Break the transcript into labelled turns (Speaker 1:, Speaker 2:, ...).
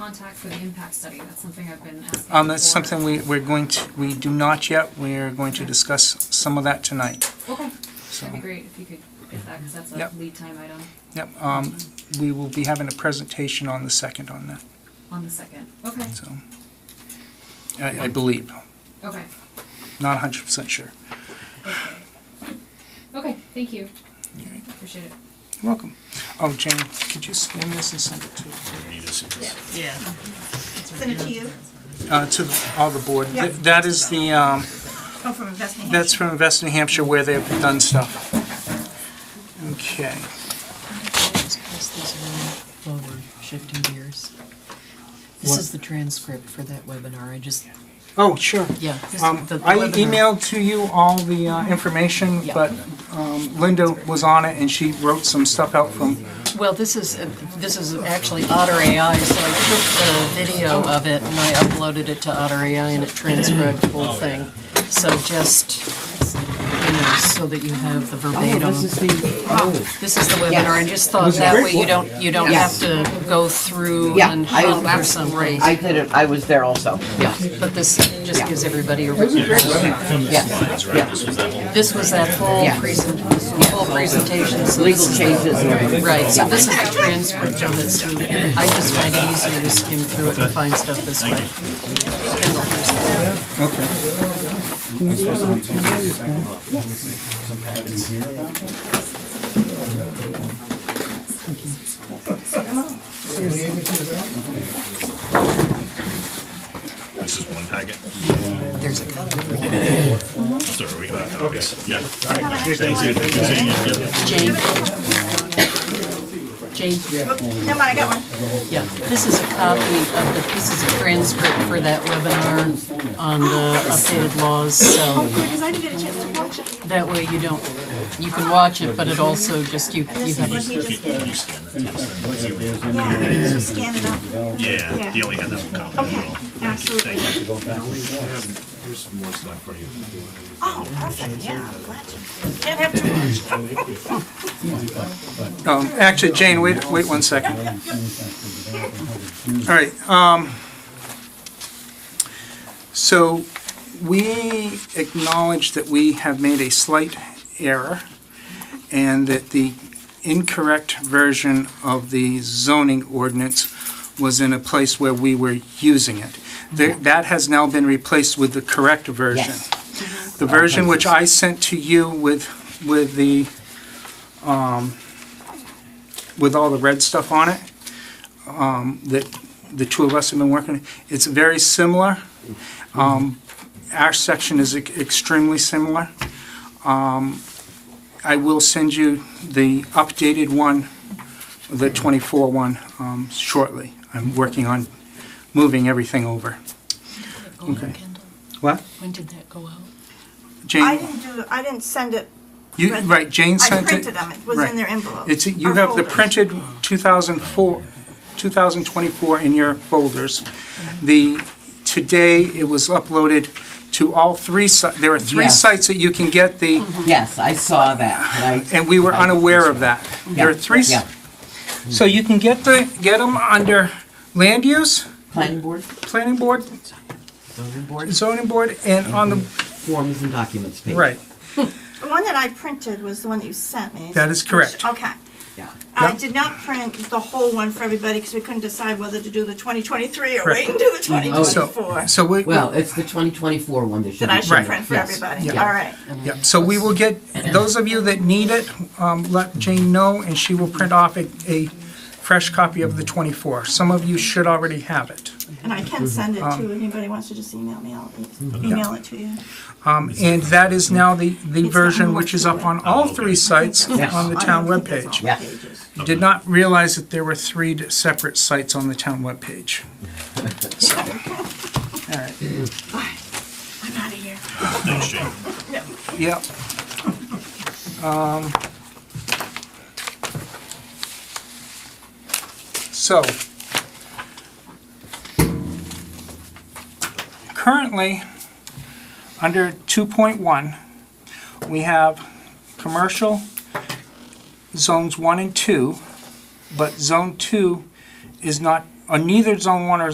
Speaker 1: contact for the impact study? That's something I've been asking.
Speaker 2: Um, that's
Speaker 1: for.
Speaker 2: something we, we're going to, we do not yet, we're going to discuss some of that tonight,
Speaker 1: Okay,
Speaker 2: so.
Speaker 1: that'd be great if you could get that, because that's a
Speaker 2: Yep.
Speaker 1: lead time item
Speaker 2: Yep, um, we will be having a presentation on the second on that,
Speaker 1: on the second. Okay,
Speaker 2: so. I, I believe,
Speaker 1: okay,
Speaker 2: not hundred percent sure.
Speaker 1: okay. Okay, thank you.
Speaker 2: You're
Speaker 1: Appreciate it.
Speaker 2: welcome. Oh, Jane, could you scan this and send it to,
Speaker 3: Yeah.
Speaker 4: Send it to you,
Speaker 2: uh, to all the board?
Speaker 4: Yeah.
Speaker 2: Th- That is the, um,
Speaker 4: come from Investment
Speaker 2: That's
Speaker 4: Hampshire.
Speaker 2: from Invest New Hampshire where they've done stuff. Okay.
Speaker 3: Just pass these around while we're shifting gears. This
Speaker 2: What?
Speaker 3: is the transcript for that webinar, I just,
Speaker 2: Oh, sure.
Speaker 3: yeah. this-
Speaker 2: Um,
Speaker 3: the- the
Speaker 2: I
Speaker 3: webinar-
Speaker 2: emailed to you all the uh, information,
Speaker 3: Yeah.
Speaker 2: but um, Linda was on it and she wrote some stuff out from,
Speaker 3: Well, this is, uh, this is actually Otter AI, so I took the video of it and I uploaded it to Otter AI and it transcribed the whole thing. So just, you know, so that you have the
Speaker 5: Oh,
Speaker 3: verbatim. This is the webinar, I just thought that way you don't, you don't have
Speaker 5: Yes.
Speaker 3: to go through
Speaker 5: Yeah,
Speaker 3: and
Speaker 5: I was
Speaker 3: hunt for something.
Speaker 5: I did it, I was there also.
Speaker 3: Yeah, but this just gives everybody a.
Speaker 5: Yes,
Speaker 3: This was that whole
Speaker 5: Yeah.
Speaker 3: present, whole presentation. so
Speaker 5: legal
Speaker 3: this is-
Speaker 5: changes and everything.
Speaker 3: Right, so this is a transcript of it, so I just find it easier to skim through it and find stuff this way.
Speaker 6: This is one packet.
Speaker 3: There's a couple.
Speaker 6: Sorry, we got copies. Yeah.
Speaker 3: Jane. Jane,
Speaker 4: Never mind, I got one.
Speaker 3: yeah, this is a copy of the, this is a transcript for that webinar on the updated laws, so
Speaker 4: Because I didn't get a chance to watch it.
Speaker 3: that way you don't, you can watch it, but it also just, you, you
Speaker 4: This is what
Speaker 3: have.
Speaker 4: he just did.
Speaker 6: You scan that.
Speaker 4: Yeah, he just scanned it up.
Speaker 6: Yeah, he
Speaker 4: Yeah.
Speaker 6: only had that one copy.
Speaker 4: Okay, absolutely.
Speaker 7: There's more stuff for you.
Speaker 4: Oh, perfect, yeah, I'm glad you. Can't have too much.
Speaker 2: um, actually, Jane, wait, wait one second. All right, um, so we acknowledge that we have made a slight error and that the incorrect version of the zoning ordinance was in a place where we were using it. There- That has now been replaced with the correct version.
Speaker 5: Yes.
Speaker 2: The version which I sent to you with, with the, um, with all the red stuff on it, um, that the two of us have been working, it's very similar. Um, Our section is ex- extremely similar. Um, I will send you the updated one, the 24 one, um, shortly. I'm working on moving everything over. Okay. What?
Speaker 3: When did that go out?
Speaker 4: I
Speaker 2: Jane,
Speaker 4: didn't do, I didn't send it,
Speaker 2: you, right, Jane
Speaker 4: I
Speaker 2: sent it.
Speaker 4: printed them, it was
Speaker 2: right.
Speaker 4: in their envelope.
Speaker 2: It's, you
Speaker 4: or
Speaker 2: have the
Speaker 4: folders.
Speaker 2: printed 2004, 2024 in your folders. The, today, it was uploaded to all three, si- there are three
Speaker 5: Yes.
Speaker 2: sites that you can get the,
Speaker 5: Yes, I saw that, and I,
Speaker 2: and we were unaware of that. There are
Speaker 5: Yeah,
Speaker 2: three, s-
Speaker 5: yeah.
Speaker 2: so you can get the, get them under land use,
Speaker 5: planning board,
Speaker 2: planning board,
Speaker 5: zoning board,
Speaker 2: zoning board, and on the,
Speaker 5: forms and documents page.
Speaker 2: right.
Speaker 4: The one that I printed was the one that you sent me.
Speaker 2: That is correct.
Speaker 4: Okay.
Speaker 5: Yeah.
Speaker 4: I
Speaker 2: Yep.
Speaker 4: did not print the whole one for everybody because we couldn't decide whether to do the 2023 or
Speaker 2: Correct.
Speaker 4: wait and do the
Speaker 2: So,
Speaker 4: 2024.
Speaker 2: so we,
Speaker 5: Well, it's the 2024 one that should
Speaker 4: That
Speaker 5: be.
Speaker 4: I should
Speaker 2: Right.
Speaker 4: print for
Speaker 5: Yes.
Speaker 4: everybody,
Speaker 5: Yeah.
Speaker 4: all right.
Speaker 2: yeah, so we will get, those of you that need it, um, let Jane know, and she will print off a, a fresh copy of the 24. Some of you should already have it.
Speaker 4: And I can send it
Speaker 2: Mm-hmm.
Speaker 4: to, anybody wants to just email me, I'll e- email it to you.
Speaker 2: Um, And that is now the, the
Speaker 4: got
Speaker 2: version
Speaker 4: more
Speaker 2: which is
Speaker 4: to
Speaker 2: up
Speaker 4: it.
Speaker 2: on all three sites
Speaker 5: Yes.
Speaker 2: on the town
Speaker 4: I don't think it's
Speaker 2: webpage.
Speaker 4: all
Speaker 5: Yeah.
Speaker 4: pages.
Speaker 2: Did not realize that there were three d- separate sites on the town webpage. So, all right,
Speaker 4: I'm out of here.
Speaker 6: Thanks, Jane.
Speaker 2: yep. Um, So. Currently, under 2.1, we have commercial zones 1 and 2, but zone 2 is not on neither zone one or